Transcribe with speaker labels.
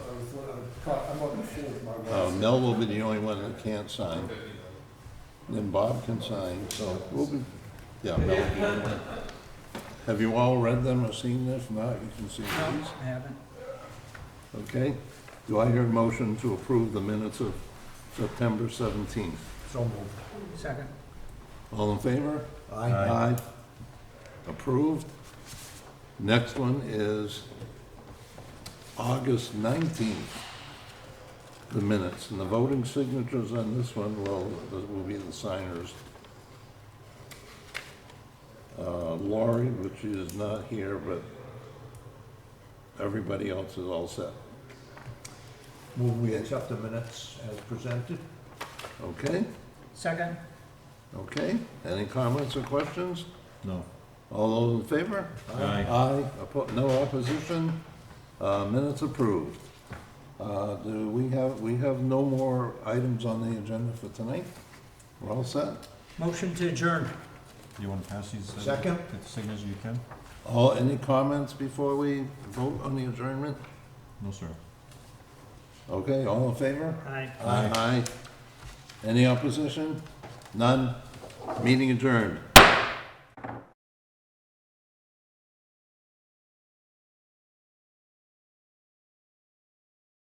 Speaker 1: uh, I'm on the fourth, my
Speaker 2: Uh,
Speaker 1: wife.
Speaker 2: Mel will be the only one that can't sign. Then Bob can sign, so we'll be, yeah, Mel will be the only one. Have you all read them or seen this? If not, you can see these.
Speaker 3: I haven't.
Speaker 2: Okay, do I hear a motion to approve the minutes of September 17th?
Speaker 1: So moved.
Speaker 3: Second.
Speaker 2: All in favor?
Speaker 1: Aye.
Speaker 2: Approved. Next one is August 19th, the minutes, and the voting signatures on this one will, will be the signers. Uh, Lori, which is not here, but everybody else is all set.
Speaker 1: Will we accept the minutes as presented?
Speaker 2: Okay?
Speaker 3: Second.
Speaker 2: Okay, any comments or questions?
Speaker 4: No.
Speaker 2: All those in favor?
Speaker 4: Aye.
Speaker 2: Aye, Oppo- no opposition, Uh, minutes approved. Uh, Do we have, we have no more items on the agenda for tonight? We're all set?
Speaker 3: Motion to adjourn.
Speaker 4: You want to pass these? uh,
Speaker 1: Second.
Speaker 4: The signatures you can?
Speaker 2: All, any comments before we vote on the adjournment?
Speaker 4: No, sir.
Speaker 2: Okay, all in favor?
Speaker 3: Aye.
Speaker 4: Aye.
Speaker 2: Aye. Any opposition? None? Meeting adjourned.